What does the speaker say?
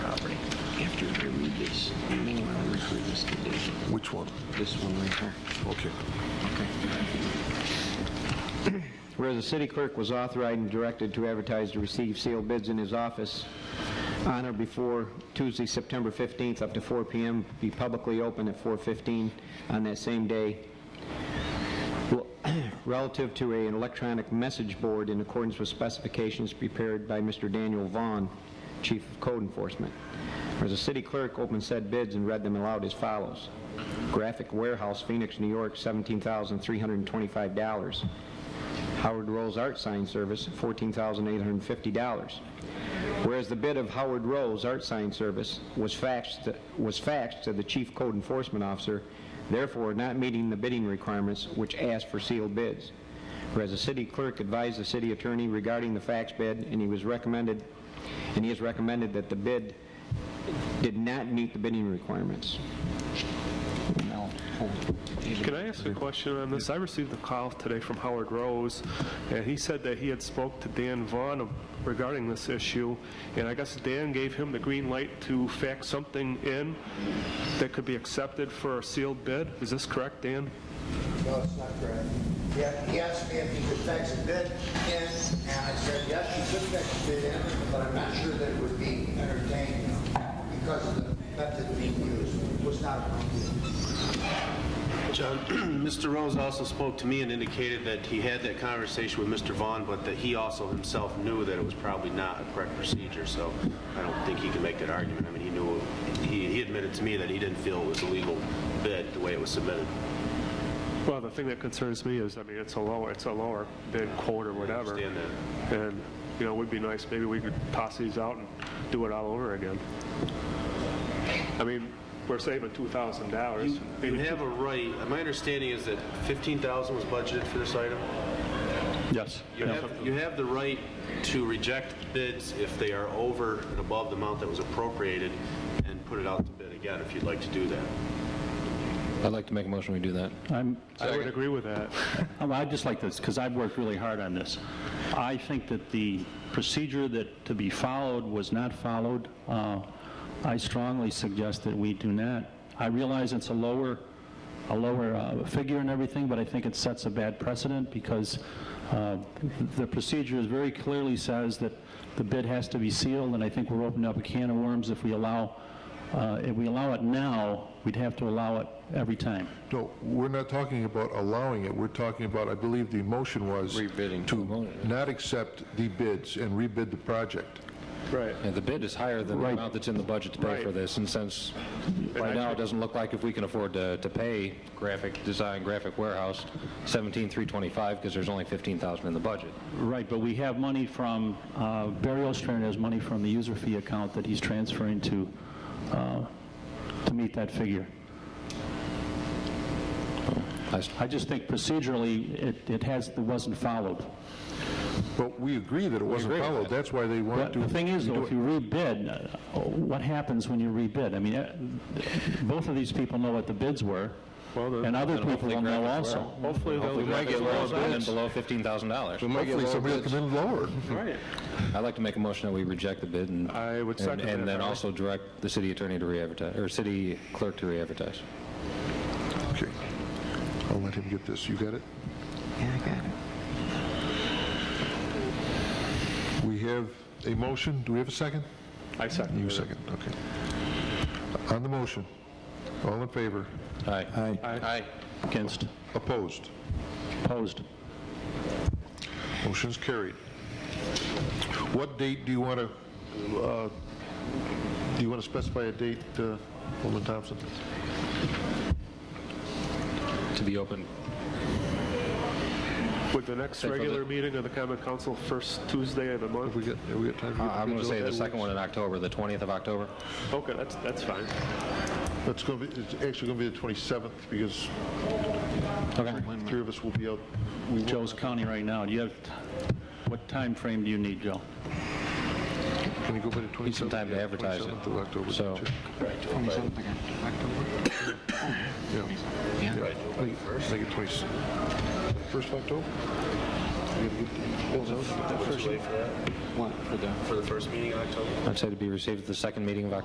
this. Which one? This one right here. Okay. Whereas the city clerk was authorized and directed to advertise to receive sealed bids in his office on or before Tuesday, September 15th, up to 4 PM, be publicly open at 4:15 on that same day, Well, relative to an electronic message board in accordance with specifications prepared by Mr. Daniel Vaughn, Chief of Code Enforcement. Whereas the city clerk opened said bids and read them aloud as follows. Graphic Warehouse, Phoenix, New York, $17,325. Howard Rose Art Sign Service, $14,850. Whereas the bid of Howard Rose Art Sign Service was faxed, was faxed to the chief code enforcement officer, therefore not meeting the bidding requirements which asked for sealed bids. Whereas the city clerk advised the city attorney regarding the fax bid, and he was recommended, and he has recommended that the bid did not meet the bidding requirements. Can I ask a question on this? I received a call today from Howard Rose, and he said that he had spoke to Dan Vaughn regarding this issue, and I guess Dan gave him the green light to fax something in that could be accepted for a sealed bid. Is this correct, Dan? No, it's not correct. Yeah, he asked me if he could fax a bid in, and I said, yes, you could fax a bid in, but I'm not sure that it would be entertained because of the method being used. It was not approved. John, Mr. Rose also spoke to me and indicated that he had that conversation with Mr. Vaughn, but that he also himself knew that it was probably not a correct procedure, so I don't think he can make that argument. I mean, he knew, he he admitted to me that he didn't feel it was a legal bid, the way it was submitted. Well, the thing that concerns me is, I mean, it's a lower, it's a lower bid quote or whatever. understand And, you know, it would be nice, maybe we could toss these out and do it all over again. I mean, we're saving $2,000. You Maybe have a right, my understanding is that 15,000 was budgeted for this item? Yes. You yeah. have, you have the right to reject bids if they are over and above the amount that was appropriated, and put it out to bid again, if you'd like to do that. I'd like to make a motion we do that. I'm, I would agree with that. Um, I'd just like this, because I've worked really hard on this. I think that the procedure that to be followed was not followed. Uh, I strongly suggest that we do not. I realize it's a lower, a lower uh, figure and everything, but I think it sets a bad precedent because uh, the procedure is very clearly says that the bid has to be sealed, and I think we're opening up a can of worms if we allow, uh, if we allow it now, we'd have to allow it every time. No, we're not talking about allowing it, we're talking about, I believe the motion was... Rebidding. To not accept the bids and rebid the project. Right. And the bid is higher than the Right. amount that's in the budget to pay for Right. this, and since right now, it doesn't look like if we can afford to, to pay graphic design, graphic warehouse, 17,325, because there's only 15,000 in the budget. Right, but we have money from, uh, Barry Ostrander has money from the user fee account that he's transferring to, uh, to meet that figure. I s- I just think procedurally, it it has, it wasn't followed. But we agree that it wasn't followed, that's why they But want to... the thing is, though, redo if it. you rebid, uh, what happens when you rebid? I mean, uh, both of these people know what the bids were, and other And people hopefully will know graphics also. were- Hopefully, we might get lower bids. Below $15,000. Hopefully somebody will come in lower. Right. I'd like to make a motion that we reject the bid and... I would and- second that, And then Howard. also direct the city attorney to re-advertise, or city clerk to re-advertise. Okay, I'll let him get this, you got it? Yeah, I got it. We have a motion, do we have a second? I second. You that. second, okay. On the motion, all in favor? Aye. Aye. Against, Opposed? opposed. Motion's carried. What date do you want to, do you want to specify a date, uh, Alderman Thompson? To be open. Would the next Say for regular the- meeting of the common council first Tuesday of the month? We got, have we got time to Uh, get the I'm going to bids say out? the second one in October, the 20th of October. Okay, that's, that's fine. That's going to be, it's actually going to be the 27th because Okay. three of us will be out. We won't- Joe's counting right now. Do you have, what time frame do you need, Joe? Can you go by the 27th? Need some time to Yeah, advertise it. 27th of October. So- check. Yeah. Yeah. Make it- make it 20 First of October? We gotta get the bills out. Would you wait for that, What, for the for the first meeting in October? I'd say to be received at the second meeting of October.